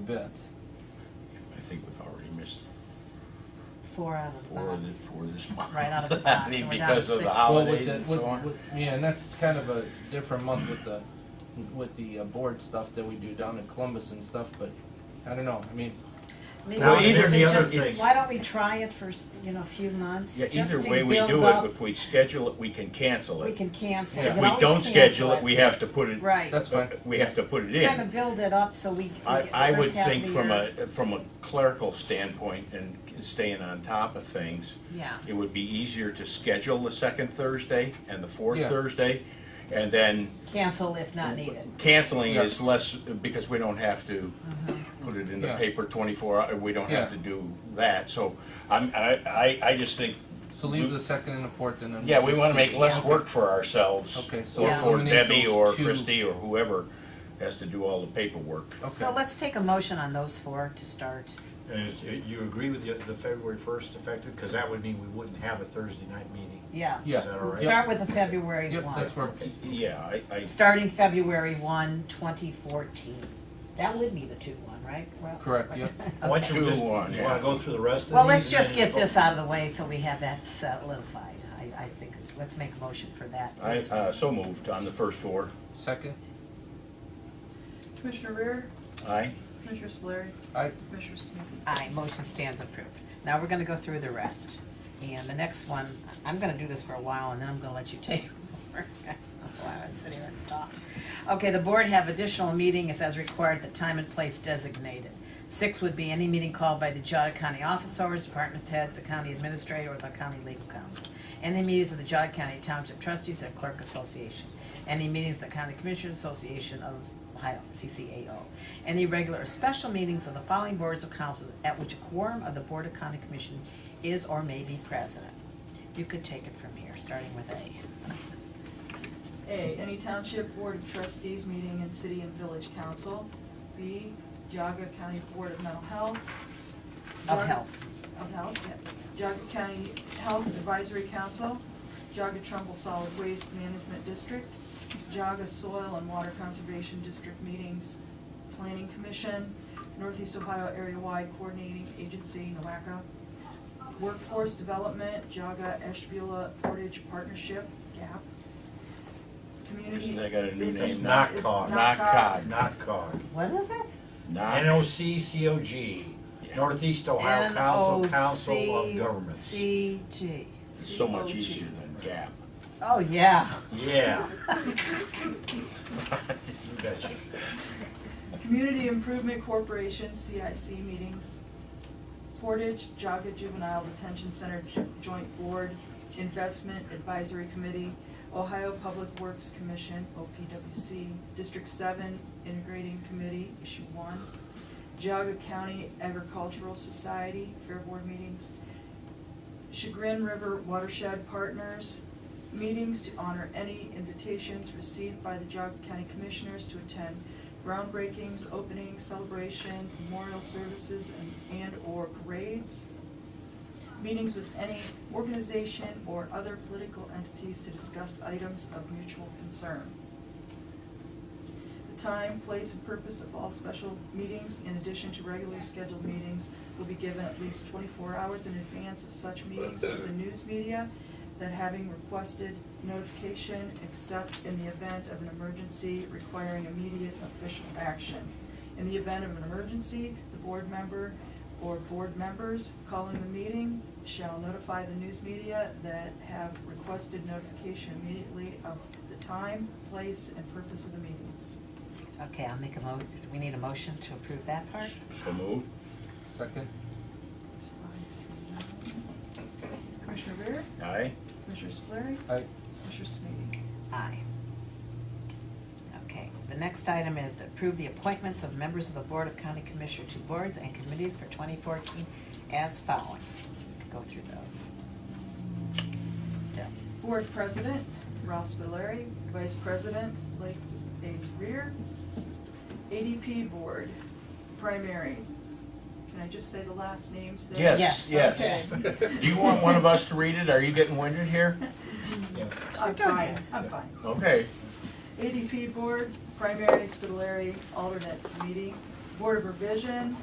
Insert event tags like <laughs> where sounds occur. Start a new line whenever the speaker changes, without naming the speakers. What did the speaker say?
bit.
I think we've already missed
four out of the
four of the,
box.
four this month. <laughs>
Right out of the
I
box,
mean,
and we're down
because
to
of the
six.
Well, with
holidays
the-
and
with-
so on.
with- Yeah, and that's kind of a different month with the, with the uh, board stuff that we do down in Columbus and stuff, but I don't know, I mean,
Maybe
Well,
we
either
should
the other
just-
thing-
Why don't we try it for, s- you know, a few months?
Yeah,
just
either
to
way we
build
do
up-
it, if we schedule it, we can cancel
We
it.
can cancel.
If
can
we
always
don't
cancel
schedule it, we have to put it, uh,
Right.
that's fine.
we have to put it
Kind of
in.
build it up so we. we
I,
get the
I would
first half of
think
the uh,
from
year.
a, from a clerical standpoint and staying on top of things,
Yeah,
it would be easier to schedule the second Thursday and the fourth
Yeah.
Thursday. And then
cancel if not needed.
canceling
Yeah.
is less, because we don't have to put it in the
Yeah.
paper twenty-four, hour- we don't have to
Yeah.
do that. So I'm, I, I, I just think,
so leave the second and the fourth and then.
yeah,
we'll
we
just
wanna make
keep-
less
Yeah.
work for ourselves.
Okay, so
Or for
eliminate
Debbie
those
or
two.
Christie or whoever has to do all the paperwork.
So
Okay,
let's take a motion on those four to start.
And is, uh, you agree with the, the February first effective, because that would mean we wouldn't have a Thursday night meeting.
Yeah.
yeah.
Is that all right?
Start with the February
Yep,
one.
that's where,
Yeah, I, I,
Starting February 1, 2014. That would be the 2-1, right? Well,
correct,
<laughs>
yep.
Why don't you
Two,
just, you
one, yeah.
wanna go through the rest of these?
Well, let's
and then
just get
go-
this out of the way so we have that solidified. I, I think, let's make a motion for that.
I, uh, so moved on the first four.
Second,
Commissioner Rear,
Aye?
Commissioner Solari,
I,
Commissioner Sneaky.
Aye, motion stands approved. Now we're gonna go through the rest. And the next one, I'm gonna do this for a while and then I'm gonna let you take <laughs> over. While I'm sitting here and talk. Okay, the board have additional meetings as required, the time and place designated. Six would be any meeting called by the Geogga County office hours, department head, the county administrator, or the county legal counsel. Any meetings of the Geogga County Township Trustees and Clerk Association. Any meetings of the County Commissioners Association of Ohio, CCAO. Any regular or special meetings of the following boards of council at which a quorum of the Board of County Commission is or may be president. You could take it from here, starting with A.
A, any township board of trustees meeting in city and village council. B, Jaga County Board of Mental Health.
Of Health.
Of Health, yeah. Jaga County Health Advisory Council, Jaga Trumbull Solid Waste Management District, Jaga Soil and Water Conservation District meetings, Planning Commission, Northeast Ohio Area Wide Coordinating Agency, NOACA, Workforce Development, Jaga Ashbula Portage Partnership, GAP, Community.
Isn't that got a new
This is-
name
now?
is
NOCCOG.
NOCCOG.
Not cog.
What is it?
Not.
N O C C O G,
Yeah.
Northeast Ohio Council, Council of Governments.
NOCCG.
It's so much easier than GAP.
Oh, yeah.
Yeah. You betcha.
Community Improvement Corporation, CIC meetings, Portage Jaga Juvenile Detention Center Jo- Joint Board, Investment Advisory Committee, Ohio Public Works Commission, OPWC, District Seven Integrating Committee, Issue One, Jaga County Agricultural Society, Fair Board meetings, Chagrin River Watershed Partners, meetings to honor any invitations received by the Geogu County Commissioners to attend groundbreakings, openings, celebrations, memorial services, and- and/or parades. Meetings with any organization or other political entities to discuss items of mutual concern. The time, place, and purpose of all special meetings, in addition to regularly scheduled meetings, will be given at least 24 hours in advance of such meetings to the news media that having requested notification, except in the event of an emergency requiring immediate official action. In the event of an emergency, the board member or board members calling the meeting shall notify the news media that have requested notification immediately of the time, place, and purpose of the meeting.
Okay, I'll make a mo, we need a motion to approve that part?
So moved?
second,
It's five, three, nine. Commissioner Rea,
Aye?
Commissioner Spillier,
I,
Commissioner Smitty.
Aye. Okay, the next item is to approve the appointments of members of the Board of County Commissioner to boards and committees for 2014 as following. We could go through those. Deb.
Board President, Ralph Spilleri, Vice President, Lake A. Rear. ADP Board, primary. Can I just say the last names there?
Yes,
Yes.
yes.
Okay.
Do you want one of us to read it? Are you getting winded here?
Yeah.
I'm
doing
fine,
it.
I'm fine.
Okay.
ADP Board, primary, Spitaleri, alternates meeting, Board of Revision,